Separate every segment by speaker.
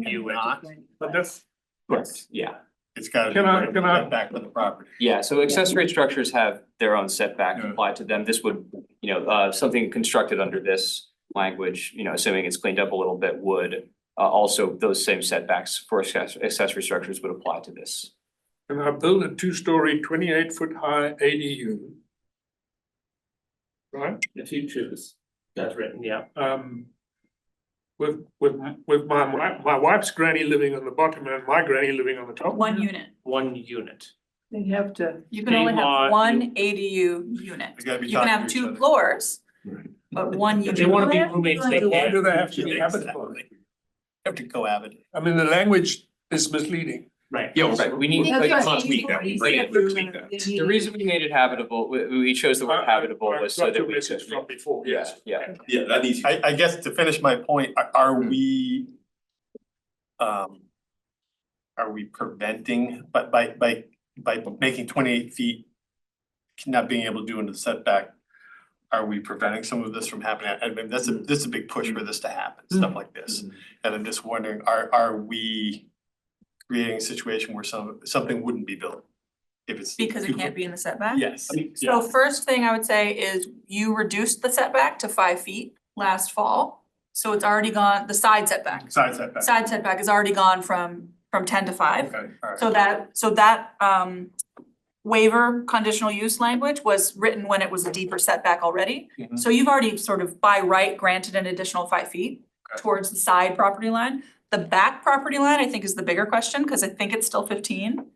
Speaker 1: You would not,
Speaker 2: But that's,
Speaker 3: Correct, yeah,
Speaker 1: it's gotta be
Speaker 2: Can I-
Speaker 1: right
Speaker 2: can I-
Speaker 1: back with the property.
Speaker 3: yeah, so accessory structures have their own setback
Speaker 1: Yeah.
Speaker 3: applied to them, this would, you know, uh, something constructed under this language, you know, assuming it's cleaned up a little bit, would uh, also, those same setbacks for access- accessory structures would apply to this.
Speaker 2: and I build a two-story, twenty-eight foot high ADU. Right,
Speaker 4: If you choose, that's written, yeah.
Speaker 2: um. With, with, with my, wi- my wife's granny living on the bottom and my granny living on the top.
Speaker 5: One unit.
Speaker 4: One unit.
Speaker 6: They have to,
Speaker 5: You can only have
Speaker 4: Meanwhile,
Speaker 5: one ADU unit.
Speaker 1: They gotta be
Speaker 5: You can
Speaker 1: talking
Speaker 5: have
Speaker 1: to each
Speaker 5: two
Speaker 1: other.
Speaker 5: floors, but one
Speaker 4: If
Speaker 5: unit.
Speaker 4: they wanna be roommates, they
Speaker 2: So Why do
Speaker 4: can.
Speaker 2: they have to be
Speaker 1: Yeah,
Speaker 2: habitable?
Speaker 1: exactly. Have to cohabit.
Speaker 2: I mean, the language is misleading.
Speaker 4: Right.
Speaker 3: Right, we need,
Speaker 6: That's
Speaker 3: like,
Speaker 6: what
Speaker 3: we-
Speaker 6: tweak that, we bring it, tweak that.
Speaker 3: the reason we made it habitable, we, we chose the
Speaker 2: I-
Speaker 3: word
Speaker 2: I-
Speaker 3: habitable
Speaker 2: I
Speaker 3: was so
Speaker 2: got
Speaker 3: that
Speaker 2: your
Speaker 3: we could.
Speaker 2: message From before,
Speaker 3: Yeah,
Speaker 2: yes.
Speaker 3: yeah,
Speaker 1: Yeah, that Hmm. needs. I, I guess to finish my point, are, are we? Um. Are we preventing, but by, by, by making twenty-eight feet, not being able to do into the setback? Are we preventing some of this from happening? I mean, that's a, this is a big push for this to happen, stuff like this. And I'm just wondering, are, are we creating a situation where some, something wouldn't be built? If it's.
Speaker 5: Because it can't be in the setback.
Speaker 1: Yes.
Speaker 5: So first thing I would say is you reduced the setback to five feet last fall. So it's already gone, the side setback,
Speaker 1: Side setback.
Speaker 5: side setback is already gone from from ten to five.
Speaker 1: Okay, all right.
Speaker 5: So that, so that um waiver conditional use language was written when it was a deeper setback already.
Speaker 1: Mhm.
Speaker 5: So you've already sort of by right granted an additional five feet
Speaker 1: Okay.
Speaker 5: towards the side property line. The back property line, I think, is the bigger question, because I think it's still fifteen.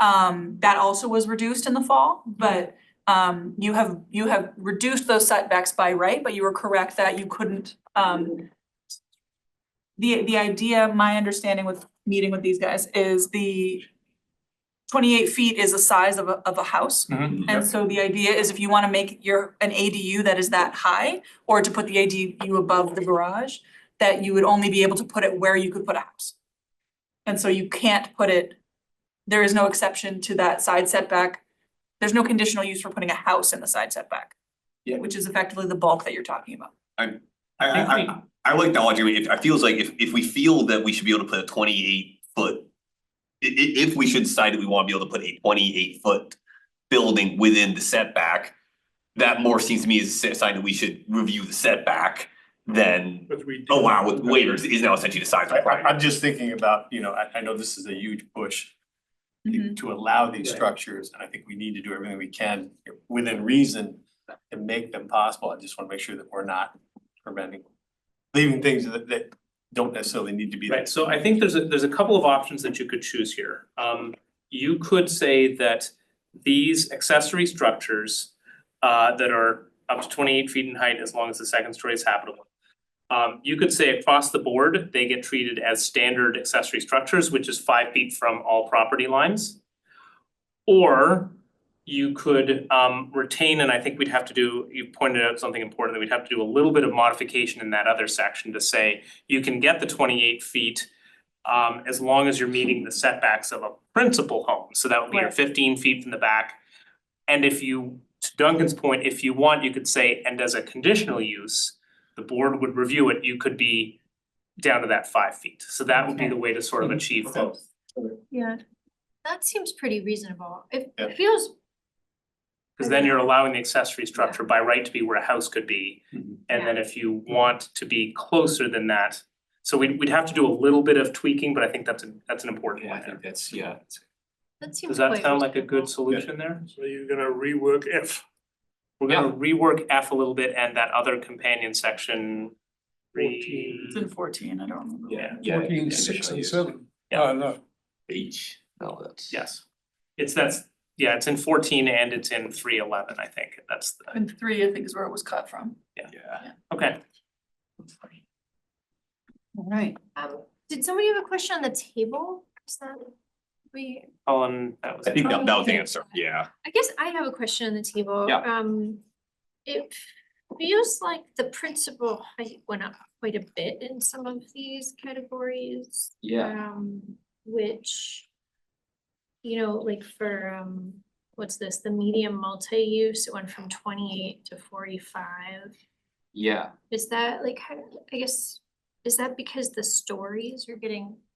Speaker 5: Um, that also was reduced in the fall, but um you have, you have reduced those setbacks by right, but you were correct that you couldn't um the the idea, my understanding with meeting with these guys is the twenty-eight feet is the size of a of a house.
Speaker 1: Mhm.
Speaker 5: And so the idea is if you wanna make your an ADU that is that high, or to put the ADU above the garage, that you would only be able to put it where you could put a house. And so you can't put it, there is no exception to that side setback. There's no conditional use for putting a house in the side setback.
Speaker 7: Yeah.
Speaker 5: Which is effectively the bulk that you're talking about.
Speaker 7: I
Speaker 4: I think
Speaker 7: I I I like the argument, if I feels like if if we feel that we should be able to put a twenty eight foot. i- i- if we should decide that we wanna be able to put a twenty eight foot building within the setback. That more seems to me is a sign that we should review the setback than,
Speaker 2: But we.
Speaker 7: oh wow, with waivers is now essentially the size of
Speaker 1: I,
Speaker 7: the
Speaker 1: I,
Speaker 7: project.
Speaker 1: I'm just thinking about, you know, I, I know this is a huge push
Speaker 5: Mhm.
Speaker 1: to- to allow these
Speaker 4: Right.
Speaker 1: structures, and I think we need to do everything we can within reason to make them possible. I just wanna make sure that we're not preventing, leaving things that, that don't necessarily need to be there.
Speaker 4: Right, so I think there's a, there's a couple of options that you could choose here. Um, you could say that these accessory structures uh, that are up to twenty-eight feet in height, as long as the second story is habitable. Um, you could say across the board, they get treated as standard accessory structures, which is five feet from all property lines. Or you could um retain, and I think we'd have to do, you pointed out something important, that we'd have to do a little bit of modification in that other section to say you can get the twenty-eight feet um, as long as you're meeting the setbacks of a principal home, so that would be your
Speaker 5: Right.
Speaker 4: fifteen feet from the back. And if you, to Duncan's point, if you want, you could say, and as a conditional use, the board would review it, you could be down to that five feet, so that would be the way to sort of achieve both.
Speaker 8: Yeah, that seems pretty reasonable. It
Speaker 1: Yeah.
Speaker 8: it feels,
Speaker 4: Cause then you're allowing the accessory structure by right to be where a house could be.
Speaker 1: Mhm.
Speaker 4: And then if you want to be closer than that, so we'd we'd have to do a little bit of tweaking, but I think that's a, that's an important
Speaker 3: yeah, I
Speaker 4: one
Speaker 3: think
Speaker 4: there.
Speaker 3: that's, yeah, that's-
Speaker 8: that seems
Speaker 4: Does
Speaker 8: quite
Speaker 4: that sound like a
Speaker 8: reasonable.
Speaker 4: good solution there?
Speaker 2: So you're gonna rework F.
Speaker 4: We're gonna rework F a little bit and that other companion section. Re.
Speaker 5: It's in fourteen, I don't remember.
Speaker 3: yeah, yeah.
Speaker 2: Fourteen, six
Speaker 3: conditional
Speaker 2: and
Speaker 3: use.
Speaker 2: seven.
Speaker 4: Yeah.
Speaker 2: Oh, no.
Speaker 7: H.
Speaker 3: No, that's.
Speaker 4: Yes, it's that's, yeah, it's in fourteen and it's in three eleven, I think, that's the,
Speaker 5: And three, I think, is where it was cut from.
Speaker 7: Yeah.
Speaker 4: okay.
Speaker 6: right.
Speaker 8: Um, Did somebody have a question on the table? Is that, we,
Speaker 4: Colin, that was.
Speaker 7: I
Speaker 4: it.
Speaker 7: think that that was the answer, yeah.
Speaker 8: I guess I have a question on the table.
Speaker 7: Yeah.
Speaker 8: Um, it feels like the principal height went up quite a bit in some of these categories.
Speaker 3: Yeah,
Speaker 8: Um, which, you know, like for, um, what's this, the medium multi-use, it went from twenty-eight to forty-five.
Speaker 3: yeah,
Speaker 8: Is that like, how, I guess, Is that because the stories are getting